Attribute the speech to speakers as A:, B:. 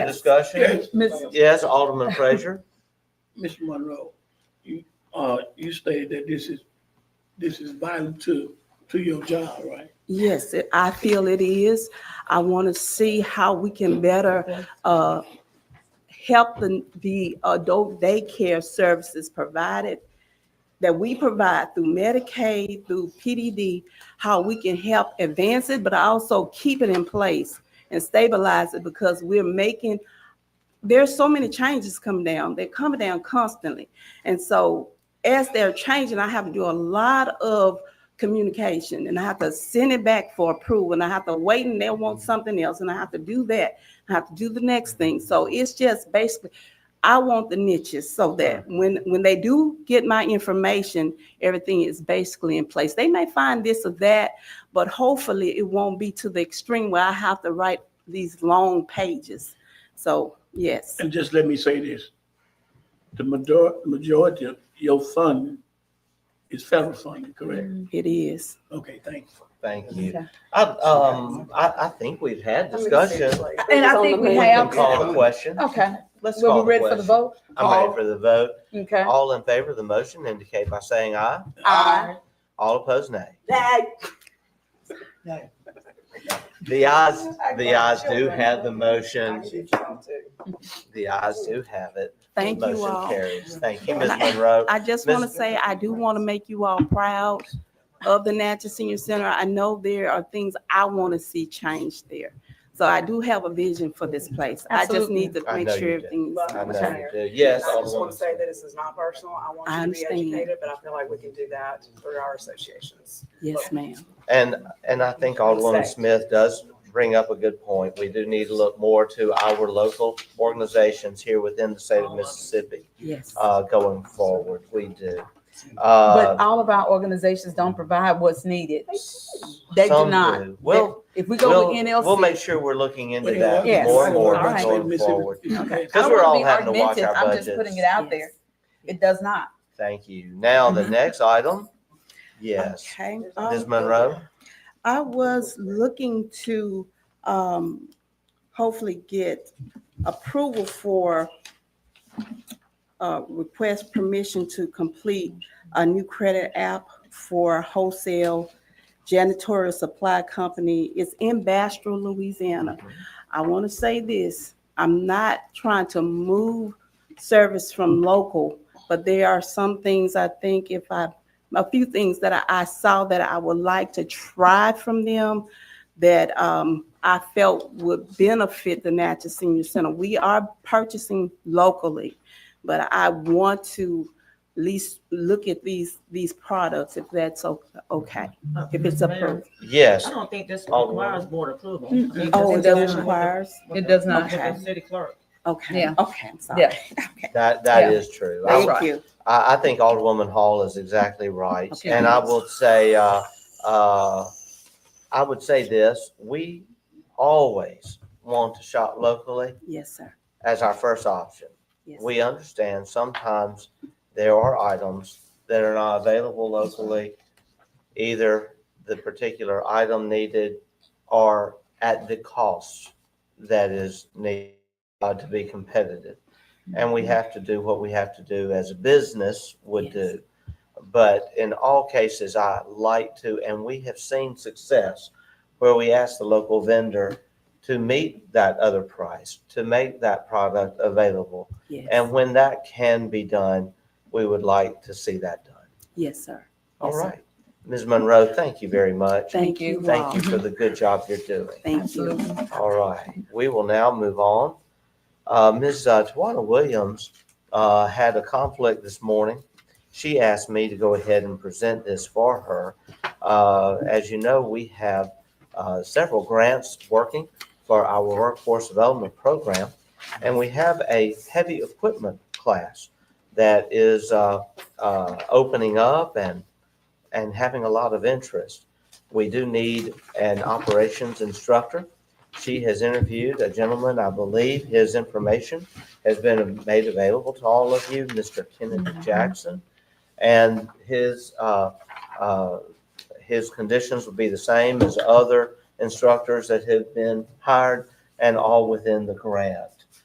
A: discussion?
B: Ms.
A: Yes, Alderman Frazier?
C: Mr. Monroe, you, uh, you stated that this is, this is vital to, to your job, right?
B: Yes, it- I feel it is. I want to see how we can better uh, help the, the adult daycare services provided that we provide through Medicaid, through PDD, how we can help advance it, but also keep it in place and stabilize it because we're making, there's so many changes coming down. They're coming down constantly. And so as they're changing, I have to do a lot of communication and I have to send it back for approval and I have to wait and they'll want something else and I have to do that. I have to do the next thing. So it's just basically, I want the niches so that when, when they do get my information, everything is basically in place. They may find this or that, but hopefully it won't be to the extreme where I have to write these long pages. So, yes.
C: And just let me say this, the major, majority of your funding is federal funding, correct?
B: It is.
C: Okay, thank you.
A: Thank you. I, um, I, I think we've had discussion.
D: And I think we
A: We can
D: have.
A: Call the question.
D: Okay,
A: Let's
D: Oh, we'll
A: call
D: be
A: the
D: ready for the
A: question.
D: vote.
A: I'm ready for the vote.
D: Okay.
A: All in favor of the motion indicate by saying aye.
D: Aye.
A: All opposed, nay.
E: That
A: The ayes, the ayes do have the motion. The ayes do have it.
B: Thank you
A: Motion
B: all.
A: carries. Thank you, Ms. Monroe.
B: I just want to
A: Miss-
B: say, I do want to make you all proud of the Natchez Senior Center. I know there are things I want to see changed there. So I do have a vision for this place. I just
D: Absolutely.
B: need to
A: I
B: make
A: know
B: sure
A: you do.
B: everything's.
A: I know
B: okay.
A: you do. Yes,
E: I just want
A: Alderwoman.
E: to say that this is not personal. I
B: I
E: want you to
B: understand.
E: be educated, but I feel like we can do that through our associations.
B: Yes, ma'am.
A: And, and I think Alderwoman
E: Say.
A: Smith does bring up a good point. We do need to look more to our local organizations here within the state of Mississippi,
B: Yes.
A: uh, going forward. We do. Uh,
D: But all of our organizations don't provide what's needed. They do
A: some
D: not.
A: Well,
D: If we
A: We'll-
D: go with NLC.
A: We'll make sure we're looking into that
D: Yes.
A: more and more
D: All right.
A: going forward.
C: Okay.
D: I
A: Because
D: don't
A: we're
D: wanna
A: all
D: be
A: having to watch
D: argumentative.
A: our
D: I'm just putting it
A: budgets.
D: out there. It does not.
A: Thank you. Now, the
D: Mm-hmm.
A: next item, yes,
B: Okay.
A: Ms.
B: Um,
A: Monroe,
B: I was looking to um, hopefully get approval for uh, request permission to complete a new credit app for wholesale janitorial supply company. It's in Bastrop, Louisiana. I want to say this, I'm not trying to move service from local, but there are some things I think if I a few things that I, I saw that I would like to try from them that um, I felt would benefit the Natchez Senior Center. We are purchasing locally, but I want to at least look at these these products if that's o- okay. If it's approved.
A: yes.
F: I don't think this
A: Alderman.
F: requires board approval. I think
B: Oh, it
F: this
B: does
F: is-
B: requires.
D: It does not.
F: With the city clerk.
B: Okay.
D: Yeah.
B: Okay. I'm sorry.
D: Yeah.
A: That, that
D: Yeah.
A: is true. I,
B: Thank
D: That's right.
B: you.
A: I I think Alderwoman Hall is exactly right.
B: Okay.
A: And I will say, uh, uh, I would say this, we always want to shop locally
B: Yes, sir.
A: as our first option.
B: Yes.
A: we understand sometimes there are items that are not available locally. Either the particular item needed or at the cost that is needed uh, to be competitive. And we have to do what we have to do as a business would
B: Yes.
A: do. But in all cases, I like to, and we have seen success where we ask the local vendor to meet that other price, to make that product available.
B: Yes.
A: And when that can be done, we would like to see that done.
B: yes, sir.
A: All
B: Yes, sir.
A: right. Ms. Monroe, thank you very much.
B: Thank
D: you.
B: you. all.
A: Thank you for the good job you're doing.
B: Thank you.
D: Absolutely.
A: All right. We will now move on. Uh, Ms. uh, Tawana Williams uh, had a conflict this morning. She asked me to go ahead and present this for her. Uh, As you know, we have uh, several grants working for our workforce development program. And we have a heavy equipment class that is uh, uh, opening up and, and having a lot of interest. We do need an operations instructor. She has interviewed a gentleman, I believe his information has been made available to all of you, Mr. Kenneth Jackson. And his, uh, uh, his conditions will be the same as other instructors that have been hired and all within the grant.